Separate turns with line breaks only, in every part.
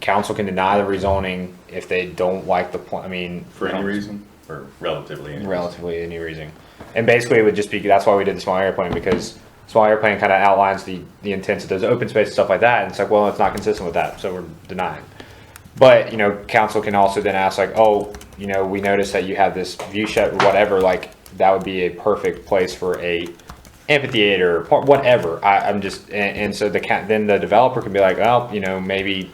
council can deny the rezoning if they don't like the plan, I mean.
For any reason, or relatively any reason.
Relatively any reason. And basically it would just be, that's why we did the small area plan, because small area plan kind of outlines the, the intents of those open space and stuff like that, and it's like, well, it's not consistent with that, so we're denying. But, you know, council can also then ask like, oh, you know, we noticed that you have this view shed, whatever, like, that would be a perfect place for a amphitheater, par- whatever, I, I'm just, and, and so the ca- then the developer can be like, oh, you know, maybe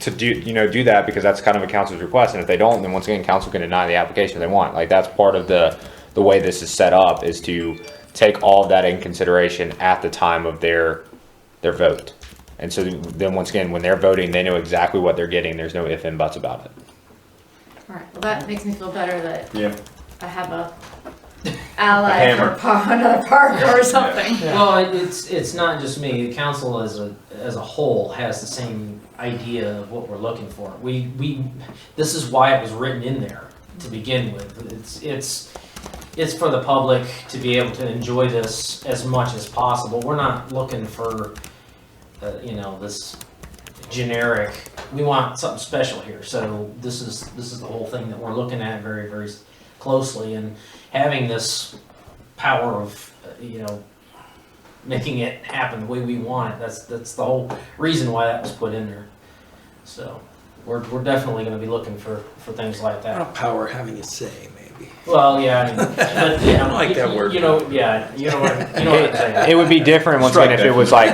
to do, you know, do that because that's kind of a council's request, and if they don't, then once again, council can deny the application if they want, like, that's part of the, the way this is set up, is to take all of that in consideration at the time of their, their vote. And so then, once again, when they're voting, they know exactly what they're getting, there's no if and buts about it.
Alright, well, that makes me feel better that
Yeah,
I have a ally
hammer.
for par- another parker or something.
Well, it- it's, it's not just me, the council as a, as a whole has the same idea of what we're looking for. We, we, this is why it was written in there to begin with. It's, it's, it's for the public to be able to enjoy this as much as possible. We're not looking for, uh, you know, this generic, we want something special here. So this is, this is the whole thing that we're looking at very, very closely and having this power of, uh, you know, making it happen the way we want it. That's that's the whole reason why that was put in there. So we're, we're definitely going to be looking for, for things like
I
that.
don't power having a say, maybe.
Well, yeah, I mean, but, you know,
I like that
you-
word.
You know, yeah, you know what you know what I'm saying.
It would be different, once again, if it was like,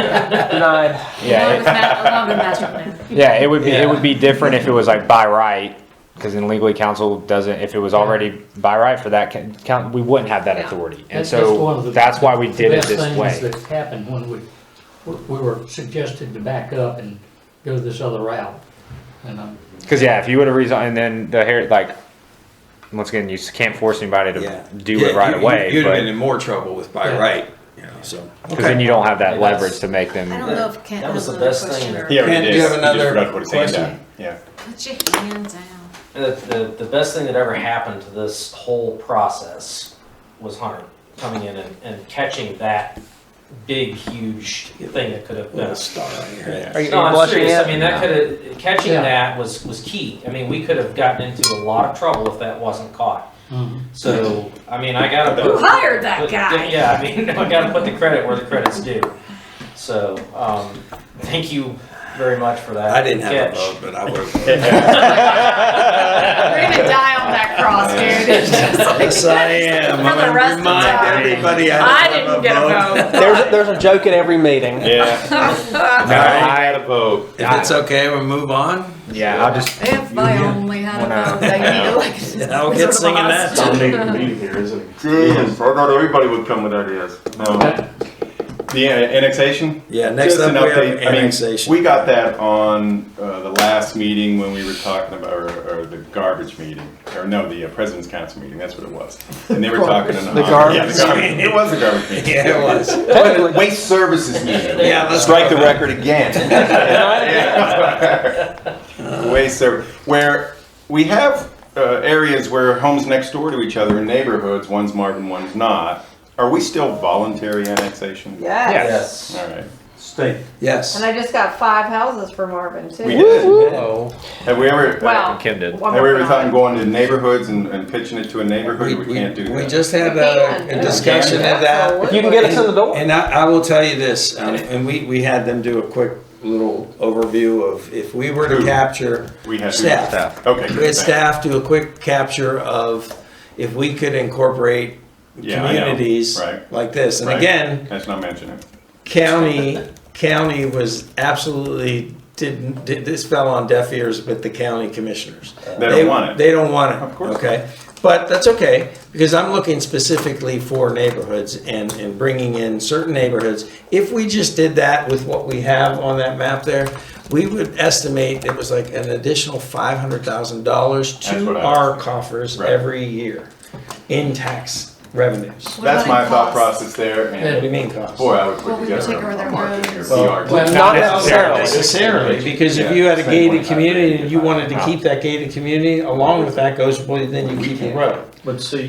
Denied.
yeah,
Along
it-
with ma- along with master plan.
Yeah, it would be, it
Yeah.
would be different if it was like by right, because then legally council doesn't, if it was already by right for that ca- count, we wouldn't have that
Yeah.
authority. And
That- that's one of
so
the-
that's why we did it
best
this
things
way.
That's happened when we, we were suggested to back up and go this other route. And um, I'm,
Because yeah, if you would have resigned, and then the hair, like, once again, you s- can't force anybody
Yeah.
to do it right
you-
away,
You'd have been
but,
in more trouble with by
Yeah.
right, you know, so.
because then you don't have that
Yeah, that's-
leverage to make
I
them.
don't know if Kent
That was
has
the
another
best thing
question
that-
or.
He already
Ken, do
did.
you have
He
another
just forgot to put his hand
question?
down. Yeah.
Put your hand down.
The, the, the best thing that ever happened to this whole process was Hunter coming in and, and catching that big, huge thing that could have been
Little star on your head.
Are you,
no,
are you
I'm
blushing
serious.
yet?
I mean, that could have catching
Yeah.
that was was key. I mean, we could have gotten into a lot of trouble if that wasn't caught. So, I mean, I gotta
Who
put,
hired that
put-
guy?
Yeah, I mean, I gotta put the credit where the credit's due. So, um, thank you very much for that.
I didn't have a
catch.
vote, but I would
We're gonna die on that cross, dude. It's just like-
Yes, I am.
For
I'm
the
gonna
rest of the
remind
time.
everybody
I
I didn't
didn't
have
get a vote.
vote.
There's, there's a joke at every meeting.
Yeah.
All right,
had a vote.
if it's okay, we'll move on.
Yeah, I'll just,
If I only had
Well, no.
a vote, I need to like.
I'll get singing that song.
Good. I thought everybody would come with ideas. No. The uh, annexation?
Yeah, next
Just
up
an
we have
update. I mean,
annexation.
We got that on uh, the last meeting when we were talking about, or, or the garbage meeting, or no, the uh, President's Council meeting, that's what it was. And they were talking. in-
The
Yeah,
garbage.
the garbage. It was the garbage meeting.
Yeah, it was.
Technically,
Waste Services meeting.
Yeah, let's
Strike the
go
record again. Yeah. Waste Serv, where we have uh, areas where homes next door to each other in neighborhoods, one's Marvin, one's not. Are we still voluntary annexation?
Yes.
Yes.
All right.
Yes.
And I just got five houses for Marvin too.
We did.
Whoa.
Have we ever?
Wow.
Kim did.
Have we ever thought
um,
of going to neighborhoods and, and pitching it to a neighborhood?
We,
We, can't do
we, we
that.
just had
Can,
a, a discussion of that.
if you can get us in the door.
And I, I will tell you this, um, and we, we had them do a quick little overview of if we were to
Who?
capture,
we have
Staff.
Okay.
we had
good, thanks.
staff do a quick capture of if we could incorporate
Yeah, I know.
communities
Right.
like this. And
Right.
again,
Let's not mention it.
county, county was absolutely, didn't, did- this fell on deaf ears with the county commissioners.
They don't want it.
They don't want it.
Of course not.
Okay, but that's okay, because I'm looking specifically for neighborhoods and, and bringing in certain neighborhoods. If we just did that with what we have on that map there, we would estimate it was like an additional five hundred thousand dollars
That's what
to
I-
our coffers
Right.
every year in tax revenues.
What
That's
about
my
in
thought
cost?
process there. And
What do you mean cost?
Boy, I would put
Well, we would
together
take
a
over their
market here.
roads.
PR.
Not
Well, not necessarily.
necessarily.
because if
Yeah,
you had a
same
gated
point.
community and you wanted to keep that gated community, along with that goes, well, then you keep the road.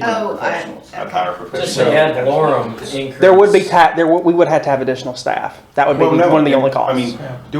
Oh, I-
I'd hire professionals.
Just the ad valorem increase.
There would be ta- there w- we would have to have additional staff. That would be
Well, no,
one of the only
I
costs.
mean, do